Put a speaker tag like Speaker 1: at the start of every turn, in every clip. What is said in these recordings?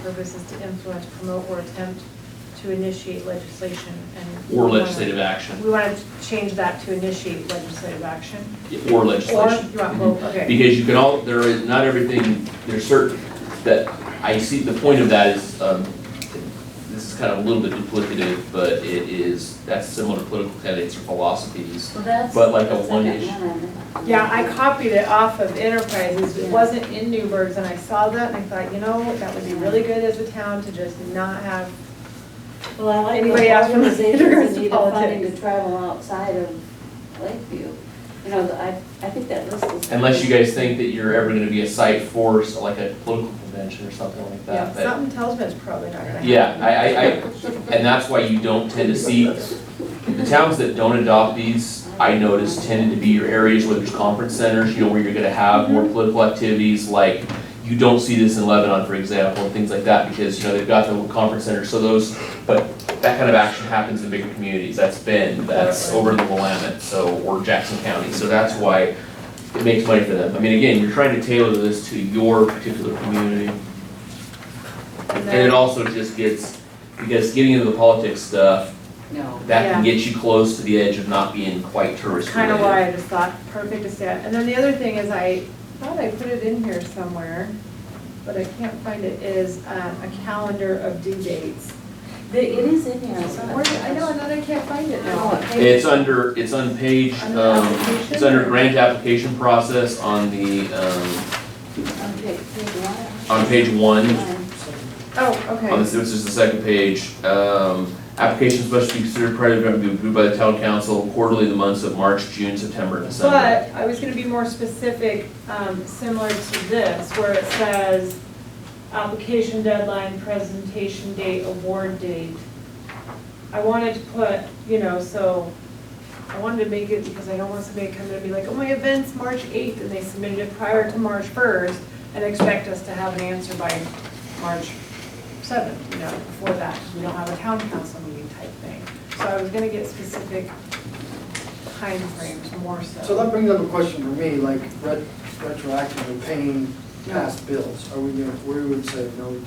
Speaker 1: purpose is to influence, promote, or attempt to initiate legislation and.
Speaker 2: Or legislative
Speaker 1: We
Speaker 2: action,
Speaker 1: want to change that to initiate legislative action.
Speaker 2: or
Speaker 1: Or,
Speaker 2: legislation.
Speaker 1: you want both, okay.
Speaker 2: Because you can all, there is, not everything, there's certain, that, I see, the point of that is, um, this is kind of a little bit duplicative, but it is, that's similar to political candidates or philosophies.
Speaker 3: Well, that's.
Speaker 2: But like a
Speaker 3: that's
Speaker 2: one
Speaker 3: like
Speaker 2: issue.
Speaker 3: one.
Speaker 1: Yeah, I copied it off of Enterprises, it wasn't in Newburgh's, and I saw that, and I thought, you know, that would be really good as a town to just not have,
Speaker 3: Well, I like
Speaker 1: Anybody else
Speaker 3: those
Speaker 1: from the
Speaker 3: organizations that need funding
Speaker 1: politics?
Speaker 3: to travel outside of Lakeview. You know, I, I think that list is.
Speaker 2: Unless you guys think that you're ever gonna be a site for, so like a political convention or something like
Speaker 1: yeah,
Speaker 2: that, but-
Speaker 1: something tells me it's probably not gonna happen.
Speaker 2: Yeah, I, I, I, and that's why you don't tend to see, the towns that don't adopt these, I notice tend to be your areas where there's conference centers, you know, where you're gonna have more political activities, like, you don't see this in Lebanon, for example, and things like that, because, you know, they've got the conference centers, so those, but that kind of action happens in bigger communities, that's Bend, that's over in the Willamette, so, or Jackson County, so that's why it makes money for them. I mean, again, you're trying to tailor this to your particular community.
Speaker 1: And
Speaker 2: And it
Speaker 1: then,
Speaker 2: also just gets, because getting into the politics stuff,
Speaker 3: No.
Speaker 2: that can
Speaker 1: Yeah.
Speaker 2: get you close to the edge of not being quite tourist
Speaker 1: kind of
Speaker 2: related.
Speaker 1: why I just thought, perfect to say, it. and then the other thing is, I thought I put it in here somewhere, but I can't find it, is um, a calendar of due dates.
Speaker 3: The- It is in here.
Speaker 1: So where, did- I know, and then I can't find it
Speaker 3: Oh.
Speaker 1: now.
Speaker 2: It's under, it's on page,
Speaker 1: Under
Speaker 2: um,
Speaker 1: application?
Speaker 2: it's under grant application process on the, um, on page one.
Speaker 1: Oh,
Speaker 2: On
Speaker 1: okay.
Speaker 2: this, this is the second page, um, applications must be considered prior to being approved by the town council quarterly in the months of March, June, September, and December.
Speaker 1: But I was gonna be more specific, um, similar to this, where it says, application deadline, presentation date, award date. I wanted to put, you know, so, I wanted to make it, because I don't want somebody to come in and be like, oh, my event's March eighth, and they submitted it prior to March first, and expect us to have an answer by March seventh, you know, before that, we don't have a town council meeting type thing. So I was gonna get specific timeframes more so.
Speaker 4: So that brings up a question for me, like ret- retroactively paying past bills, are we gonna, we would say no to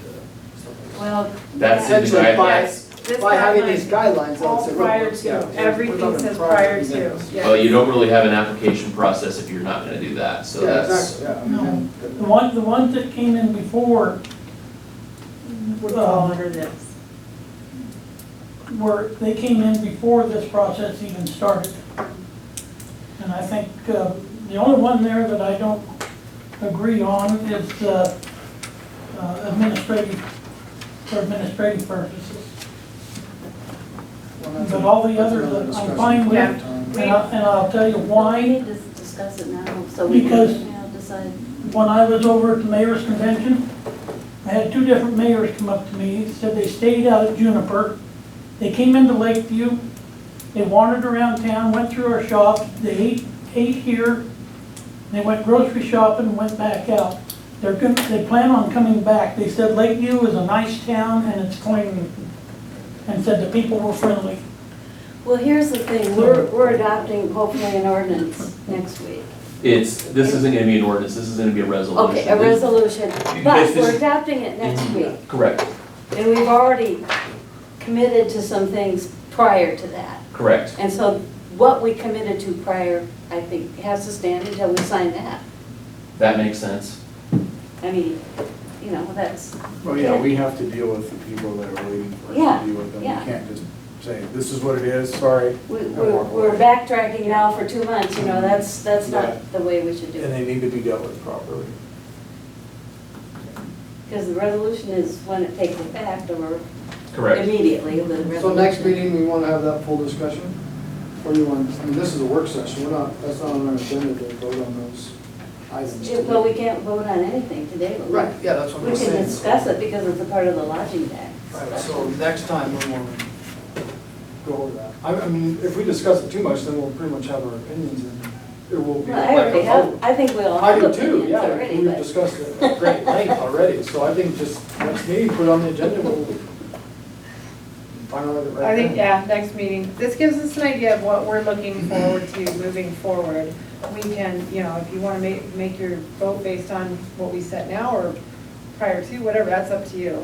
Speaker 4: stuff like
Speaker 3: Well.
Speaker 2: That's in the
Speaker 4: Essentially,
Speaker 2: guide,
Speaker 4: by-
Speaker 2: that's,
Speaker 1: This
Speaker 4: that? By having these
Speaker 1: guideline,
Speaker 4: guidelines, I'll
Speaker 1: All
Speaker 4: say.
Speaker 1: prior to, everything says prior to, yeah.
Speaker 2: well, you don't really have an application process if you're not gonna do that, so
Speaker 4: Yeah,
Speaker 2: that's.
Speaker 4: exactly, yeah. I mean,
Speaker 5: The
Speaker 4: that-
Speaker 5: one, the ones that came in before
Speaker 1: Would fall under this.
Speaker 5: were, they came in before this process even started. And I think uh, the only one there that I don't agree on is the uh, administrative, for administrative purposes.
Speaker 4: well, that's
Speaker 5: But
Speaker 4: a-
Speaker 5: all the
Speaker 4: that's
Speaker 5: other,
Speaker 4: another
Speaker 5: I'm
Speaker 4: discussion
Speaker 5: fine with.
Speaker 4: sometime.
Speaker 5: And I- and I'll tell you
Speaker 3: We
Speaker 5: why.
Speaker 3: need to discuss it now, so we
Speaker 5: Because-
Speaker 3: can now decide.
Speaker 5: When I was over at the mayor's convention, I had two different mayors come up to me, said they stayed out at Juniper. They came into Lakeview, they wandered around town, went through our shops, they ate, ate here, they went grocery shopping, and went back out. They're going, they plan on coming back. They said Lakeview is a nice town and it's clean, and said the people were friendly.
Speaker 3: Well, here's the thing, we're, we're adopting hopefully an ordinance next week.
Speaker 2: It's, this isn't gonna be an ordinance, this is gonna be a resolution.
Speaker 3: Okay, a resolution,
Speaker 2: This Mm-hmm.
Speaker 3: but
Speaker 2: is-
Speaker 3: we're adopting it next week.
Speaker 2: Correct,
Speaker 3: And we've already committed to some things prior to that.
Speaker 2: correct.
Speaker 3: And so what we committed to prior, I think, has to stand until we sign that.
Speaker 2: That makes sense.
Speaker 3: I mean, you know, that's,
Speaker 6: Well, yeah, we have to deal with the people that are waiting for us
Speaker 3: Yeah,
Speaker 6: to deal with them. We
Speaker 3: yeah.
Speaker 6: can't just say, this is what it is, sorry.
Speaker 3: we-
Speaker 6: and
Speaker 3: we're
Speaker 6: walk away.
Speaker 3: we're backtracking now for two months, you know, that's, that's
Speaker 6: Yeah.
Speaker 3: not the way we should do
Speaker 6: And
Speaker 3: it.
Speaker 6: they need to be dealt with properly.
Speaker 3: Because the resolution is when it takes effect or
Speaker 2: Correct.
Speaker 3: immediately, the
Speaker 4: So next
Speaker 3: resolution.
Speaker 4: meeting, we wanna have that full discussion? Or you want, I mean, this is a work session, we're not, that's not on our agenda to vote on those items.
Speaker 3: Yeah, Well, we can't vote on anything today, but
Speaker 4: Right,
Speaker 3: we-
Speaker 4: yeah, that's what
Speaker 3: we
Speaker 4: I'm saying.
Speaker 3: can discuss it because it's a part of the lodging tax.
Speaker 4: Right, so next time we're going to go over that. I, I mean, if we discuss it too much, then we'll pretty much have our opinions and it will be
Speaker 3: Well, I
Speaker 4: like
Speaker 3: already
Speaker 4: a
Speaker 3: have,
Speaker 4: vote.
Speaker 3: I think we all
Speaker 4: I
Speaker 3: have
Speaker 4: do too,
Speaker 3: opinions
Speaker 4: yeah,
Speaker 3: already,
Speaker 4: we've
Speaker 3: but
Speaker 4: discussed it at great length already, so I think just next meeting, put it on the agenda, we'll find out what the
Speaker 1: I
Speaker 4: right
Speaker 1: think,
Speaker 4: thing.
Speaker 1: yeah, next meeting. This gives us an idea of what we're looking forward to moving forward. We can, you know, if you want to make, make your vote based on what we set now or prior to, whatever, that's up to you.